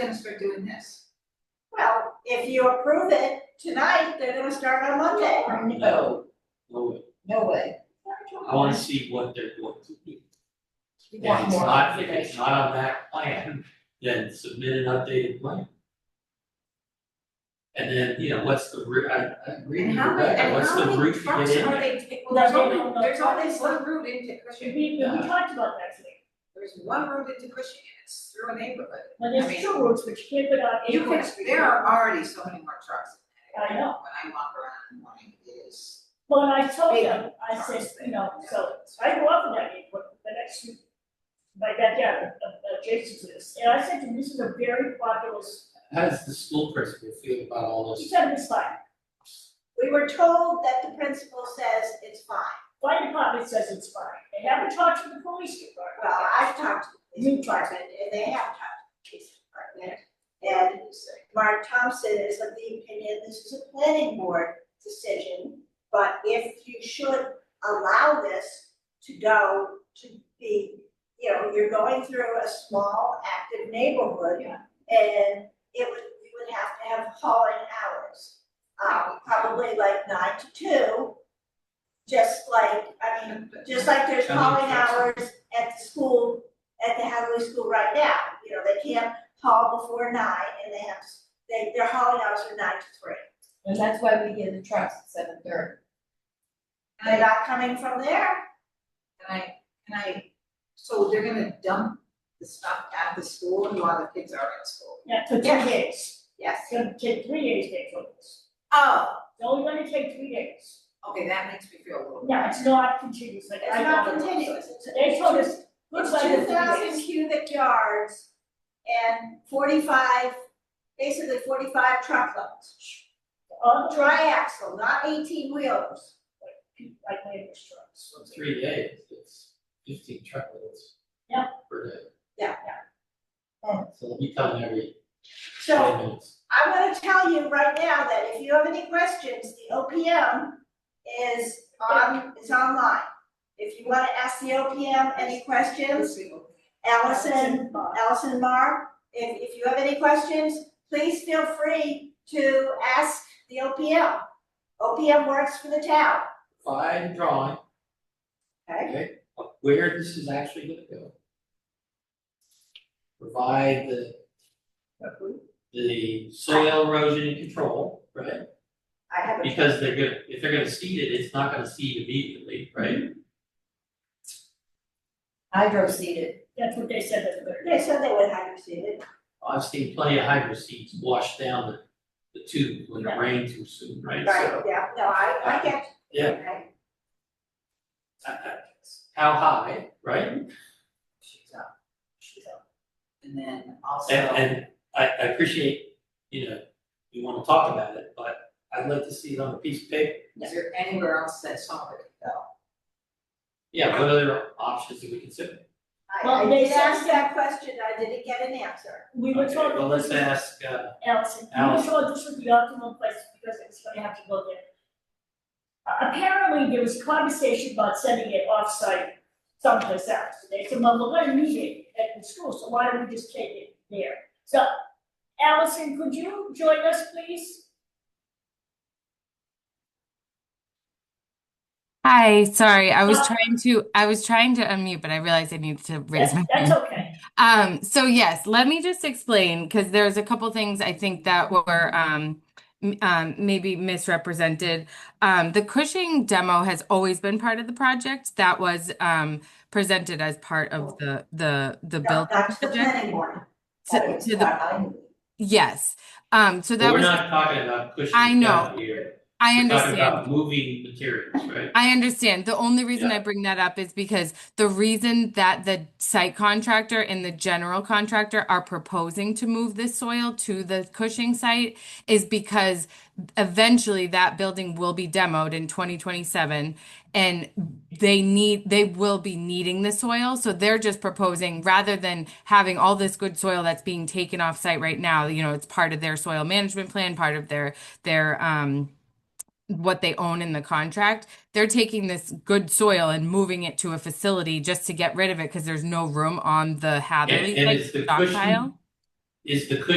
gonna start doing this. Well, if you approve it tonight, they're gonna start on Monday. No, Well, no way. Oh, I wanna see what they're going to do. We If want it's more not, if it's information. not on that plan, then submit an updated plan. And then, you know, what's the route, I, I agree with And you, how many, Rebecca, and what's how the many route to trucks get in are there? they taking, No, there's no, only, no, no, there's only it's- one route into We, Cushing, we talked about that today, there's one route into Cushing, and it's through a neighborhood. but I mean- there's two routes which can't get on You Acorn can, Street. there are already so many more trucks in that I area know. when I walk around in the morning, it is. But I told big them, I cars said, you know, there. so, I go up to that Acorn, the next, street, my backyard, uh, adjacent to this, and I said to him, this is a very populous, How does the school principal feel about all he this? said, it's fine. We were told that the principal says it's fine. Fire department says it's fine, they haven't talked to the police department. Well, I've talked to the You police talked. department, and they have talked to the police department. And Mark Thompson is of the opinion, this is a planning board decision, but if you should allow this to go to be, you know, you're going through a small active neighborhood. Yeah. And it would, you would have to have hauling hours, um, probably like nine to two. Just like, I mean, just like there's I mean, calling that's- hours at the school, at the Hathaway School right now, you know, they can't haul before nine and they have, they, their hauling hours are nine to three. And that's why we get the trucks at seven thirty. And They're not coming from there, And I, and I, so they're gonna dump the stuff at the school and while the kids are at school, Yeah, for two Yeah. days, yes. it's gonna take three days to get through this, Oh, it's only gonna take three days. okay, that makes me feel a little. No, it's not continuous, like it's I not don't know. continuous, it's. They told us, looks like Two thousand cubic yards and forty-five, basically forty-five truckloads. on dry, Dry axle, not eighteen wheelers. like neighbor's trucks. So Three days, it's fifteen truckloads. Yeah. Per day. Yeah, yeah. Alright, so let me tell them every So ten minutes. I'm gonna tell you right now that if you have any questions, the OPM is on, is online. If you wanna ask the OPM any questions, Allison, Allison Mar, if, if you have any questions, please feel free to ask the OPM. OPM works for the town, Fine drawing, okay? okay, of where this is actually gonna go. Provide the, the soil erosion and control, right? I have a, Because they're gonna, if they're gonna seed it, it's not gonna seed immediately, Mm-hmm. right? Hydro seeded. That's what they said, that's what they they said they would have received it. I've seen plenty of hydro seeds wash down the, the tube when it rained too soon, right? Right, So, yeah, no, I, I get. you, Yeah. okay? I- I- How high, right? She's up, should tell. and then also. And, and I, I appreciate, you know, you wanna talk about it, but I'd like to see it on a piece of paper. Is there anywhere else that someone could go? Yeah, what other options do we consider? I, I Well, they did ask said- that question, I didn't get an answer. We were Okay, told. Well, let's ask, uh, Allison, you were Allison. told this was the optimal place because it was gonna have to go there. A- Apparently, there was conversation about sending it offsite someplace else. They said, well, we're gonna need it at the school, so why don't we just take it there? So Allison, could you join us, please? Hi, sorry. I was Uh, trying to I was trying to unmute, but I realized I needed to raise my That's- That's hand. okay. Um, so yes, let me just explain because there's a couple things I think that were um, m- um, maybe misrepresented. Um, the Cushing demo has always been part of the project. That was um, presented as part of the the the No, build That's the project planning board. to, to the yes. Um, so well, that we're was not talking about cushions I know. down here. I We're understand. talking about moving materials, right? I understand. The only reason Yeah. I bring that up is because the reason that the site contractor and the general contractor are proposing to move this soil to the Cushing site is because eventually that building will be demoed in 2027 and they need they will be needing the soil so they're just proposing rather than having all this good soil that's being taken off site right now you know it's part of their soil management plan part of their their um what they own in the contract, they're taking this good soil and moving it to a facility just to get rid of it because there's no room on the Hatherley and site is to the cushion- stockpile. is the cushion